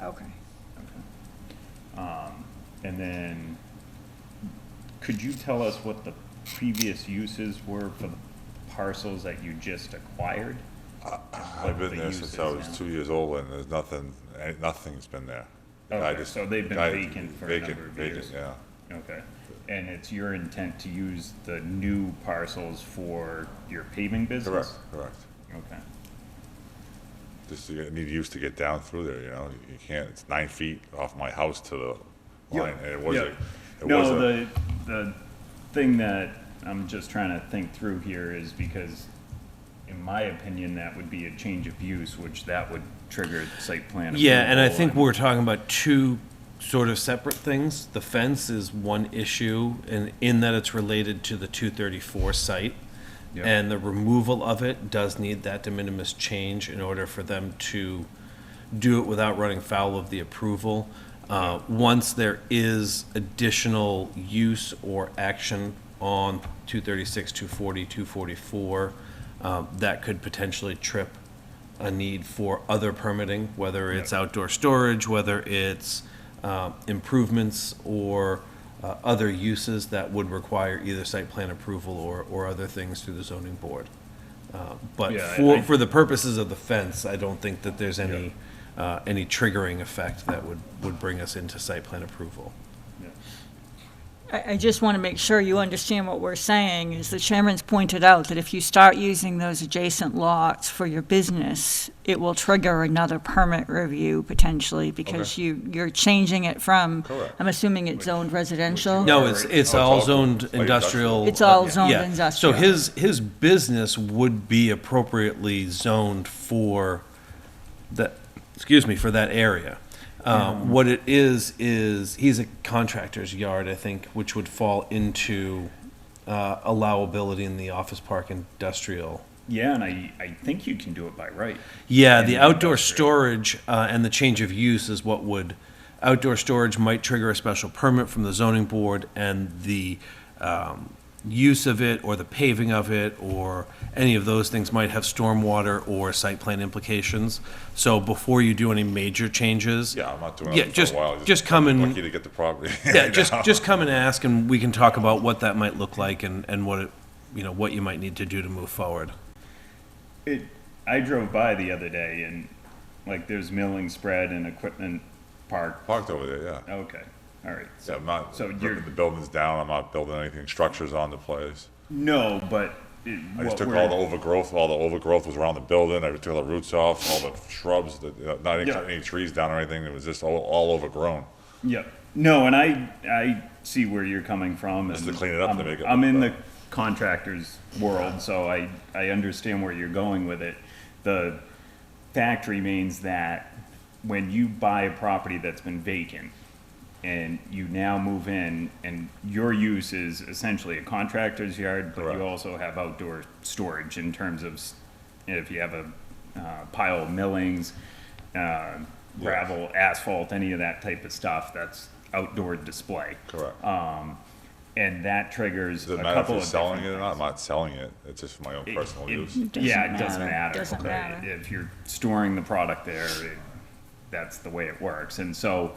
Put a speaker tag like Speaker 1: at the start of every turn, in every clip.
Speaker 1: Okay.
Speaker 2: Um, and then, could you tell us what the previous uses were for the parcels that you just acquired?
Speaker 3: I've been there since I was two years old, and there's nothing, eh, nothing's been there. I
Speaker 2: Okay,
Speaker 3: just-
Speaker 2: so they've been
Speaker 3: I-
Speaker 2: vacant for a
Speaker 3: vacant-
Speaker 2: number of
Speaker 3: vacant,
Speaker 2: years.
Speaker 3: Yeah,
Speaker 2: Okay, and it's your intent to use the new parcels for your paving business?
Speaker 3: correct, correct.
Speaker 2: Okay,
Speaker 3: Just you need use to get down through there, you know, you can't, it's nine feet off my house to the line, and it was
Speaker 2: yeah.
Speaker 3: a, it was
Speaker 2: No,
Speaker 3: a,
Speaker 2: the, the thing that I'm just trying to think through here is because, in my opinion, that would be a change of use, which that would trigger site plan.
Speaker 4: Yeah, and I
Speaker 2: approval
Speaker 4: think we're talking about two sort of separate things. The fence is one issue, and in that it's related to the 234 site.
Speaker 2: Yeah.
Speaker 4: And the removal of it does need that de minimis change in order for them to do it without running foul of the approval. Uh, Once there is additional use or action on 236, 240, 244, um, that could potentially trip a need for other permitting, whether it's outdoor storage, whether it's uh, improvements or uh, other uses that would require either site plan approval or, or other things through the zoning board. Uh, But
Speaker 2: Yeah, I- I-
Speaker 4: for, for the purposes of the fence, I don't think that there's any, uh, any triggering effect that would, would bring us into site plan approval.
Speaker 1: I, I just want to make sure you understand what we're saying, is the chairman's pointed out that if you start using those adjacent lots for your business, it will trigger another permit review potentially, because you, you're changing it from,
Speaker 3: Correct.
Speaker 1: I'm assuming it's zoned residential?
Speaker 4: No, it's, it's all
Speaker 3: it's all-
Speaker 4: zoned
Speaker 3: like industrial.
Speaker 4: industrial.
Speaker 1: It's all
Speaker 4: uh,
Speaker 1: zoned
Speaker 4: yeah.
Speaker 1: industrial.
Speaker 4: So his, his business would be appropriately zoned for that, excuse me, for that area. Um, What it is, is he's a contractor's yard, I think, which would fall into uh, allowability in the office park industrial.
Speaker 2: Yeah, and I, I think you can do it by right.
Speaker 4: Yeah,
Speaker 2: And
Speaker 4: the
Speaker 2: the
Speaker 4: outdoor
Speaker 2: industrial.
Speaker 4: storage uh, and the change of use is what would, outdoor storage might trigger a special permit from the zoning board, and the um, use of it, or the paving of it, or any of those things might have stormwater or site plan implications. So before you do any major changes.
Speaker 3: yeah, I'm not doing
Speaker 4: Yeah,
Speaker 3: it for
Speaker 4: just-
Speaker 3: a while.
Speaker 4: just come and-
Speaker 3: Lucky to get the property.
Speaker 4: Yeah,
Speaker 3: right
Speaker 4: just,
Speaker 3: now.
Speaker 4: just come and ask, and we can talk about what that might look like and, and what, it you know, what you might need to do to move forward.
Speaker 2: It, I drove by the other day and like there's milling spread and equipment parked.
Speaker 3: Parked over there, yeah.
Speaker 2: Okay, all right.
Speaker 3: Yeah, I'm not,
Speaker 2: So you're-
Speaker 3: ripping the building's down, I'm not building anything, structures on the place.
Speaker 2: No, but. it-
Speaker 3: I just
Speaker 2: what
Speaker 3: took
Speaker 2: we're-
Speaker 3: all the overgrowth, all the overgrowth was around the building, I took all the roots off, all the shrubs, the- not any,
Speaker 2: Yeah.
Speaker 3: any trees down or anything, it was just all, all overgrown.
Speaker 2: Yeah. No, and I I see where you're coming from.
Speaker 3: Just
Speaker 2: and
Speaker 3: to clean it up
Speaker 2: I'm,
Speaker 3: to make it
Speaker 2: I'm
Speaker 3: look
Speaker 2: in the
Speaker 3: better.
Speaker 2: contractor's world, so I I understand where you're going with it. The fact remains that when you buy a property that's been vacant and you now move in and your use is essentially a contractor's yard, but
Speaker 3: Correct.
Speaker 2: you also have outdoor storage in terms of s- if you have a uh, pile of millings, uh, gravel, asphalt, any of that type of stuff, that's outdoor display.
Speaker 3: Correct.
Speaker 2: And that triggers
Speaker 3: Does
Speaker 2: a
Speaker 3: it matter if
Speaker 2: couple
Speaker 3: you're
Speaker 2: of
Speaker 3: selling it
Speaker 2: different
Speaker 3: or not? I'm not selling it, it's just for my own
Speaker 2: it-
Speaker 3: personal
Speaker 2: it-
Speaker 3: use.
Speaker 2: Yeah, it
Speaker 1: Doesn't
Speaker 2: doesn't
Speaker 1: matter.
Speaker 2: matter.
Speaker 1: Doesn't
Speaker 2: okay?
Speaker 1: matter.
Speaker 2: If you're storing the product there, it- that's the way it works. And so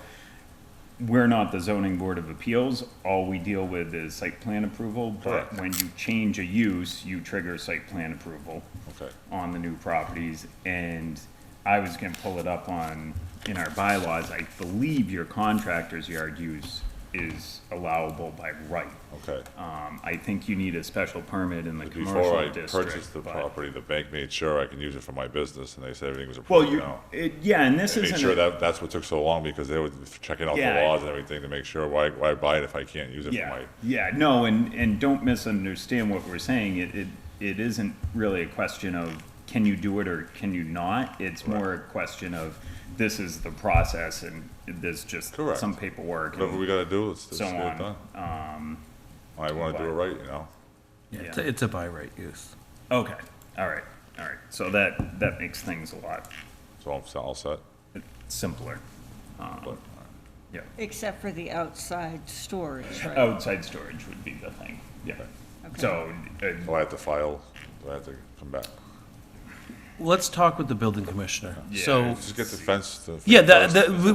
Speaker 2: we're not the zoning board of appeals. All we deal with is site plan approval. But
Speaker 3: Correct.
Speaker 2: when you change a use, you trigger site plan approval
Speaker 3: Okay.
Speaker 2: on the new properties. And I was gonna pull it up on, in our bylaws, I believe your contractor's yard use is allowable by right.
Speaker 3: Okay.
Speaker 2: Um, I think you need a special permit in the
Speaker 3: Before I
Speaker 2: commercial district.
Speaker 3: purchased the
Speaker 2: but-
Speaker 3: property, the bank made sure I can use it for my business, and they said everything was
Speaker 2: Well,
Speaker 3: approved
Speaker 2: you,
Speaker 3: now.
Speaker 2: it, yeah, and this
Speaker 3: They
Speaker 2: isn't.
Speaker 3: made sure
Speaker 2: a-
Speaker 3: that, that's what took so long, because they were checking out the
Speaker 2: Yeah.
Speaker 3: laws and everything to make sure, why, why buy it if I can't use it for
Speaker 2: Yeah,
Speaker 3: my?
Speaker 2: yeah, no, and, and don't misunderstand what we're saying. It, it, it isn't really a question of can you do it or can you not? It's more a question of this is the process and there's just
Speaker 3: Correct.
Speaker 2: some paperwork.
Speaker 3: Whatever we
Speaker 2: and-
Speaker 3: gotta do, let's, let's
Speaker 2: So
Speaker 3: get it done.
Speaker 2: on, Uh,
Speaker 3: I wanna do
Speaker 2: but-
Speaker 3: it right, you know?
Speaker 2: It's a-
Speaker 4: It's a by right use.
Speaker 2: Okay, all right, all right. So that, that makes things a lot
Speaker 3: So I'm s- all set.
Speaker 2: simpler.
Speaker 3: But
Speaker 2: Yeah.
Speaker 1: Except for the outside storage, right?
Speaker 2: Outside storage would be the thing, yeah.
Speaker 1: Okay.
Speaker 2: So, uh,
Speaker 3: Do I have to file? Do I have to come back?
Speaker 4: Let's talk with the building commissioner.
Speaker 2: Yeah,
Speaker 4: So.
Speaker 3: Just get the fence. the-
Speaker 4: Yeah, that,
Speaker 3: first.
Speaker 4: that,